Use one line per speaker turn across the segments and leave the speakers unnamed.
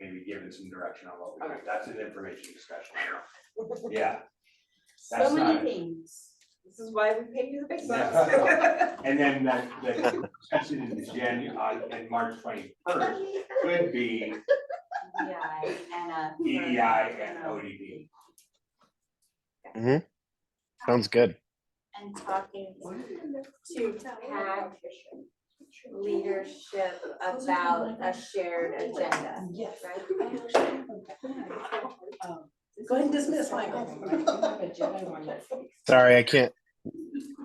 be given some direction on what we do.
Okay.
That's an information discussion. Yeah, That's
So many
not-
things. This is why we pay you the big bucks.
Yeah. and then that, that session in Jan, uh, in March twenty-first could be
EDI E and a.
EDI E and ODD.
Sounds good.
And talking to PAC leadership about a shared agenda,
Yes. Um,
right?
Go ahead and dismiss Michael.
Sorry, I can't.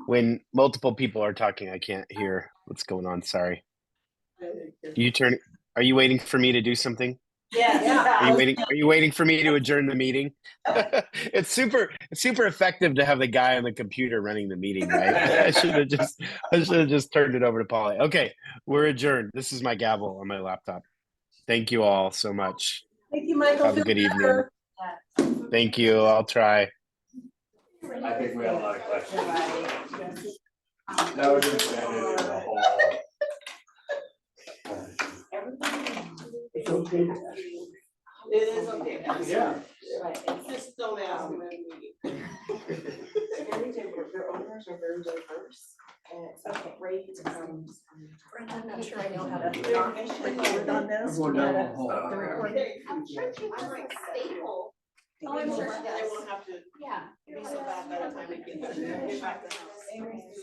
When multiple people are talking, I can't hear what's going on. Sorry. You turn. Are you waiting for me to do something? Are you
Yes.
waiting? Are you waiting for me to adjourn the meeting? it's super. It's super effective to have the guy on the computer running the meeting, right? I should have just. I should have just turned it over to Polly. Okay, we're adjourned. This is my gavel on my laptop. Thank you all so much.
Thank you, Michael.
Have a
Feel
good evening.
better.
Thank you. I'll try.
I think we had a lot of questions.
Everybody.
That was embedded in the whole.
Everybody.
It's okay.
It is okay.
Yeah.
Right, it's just-
Just don't ask me when we.
Very diverse, their owners are very diverse, and it's a great, um,
I'm not sure I know how to.
Their mission is-
Record on this.
Everyone down the hall.
The recording.
I'm sure she was like staple.
Oh, I'm sure she
They
does.
won't have to
yeah.
be so bad by the time it gets, get back to the house.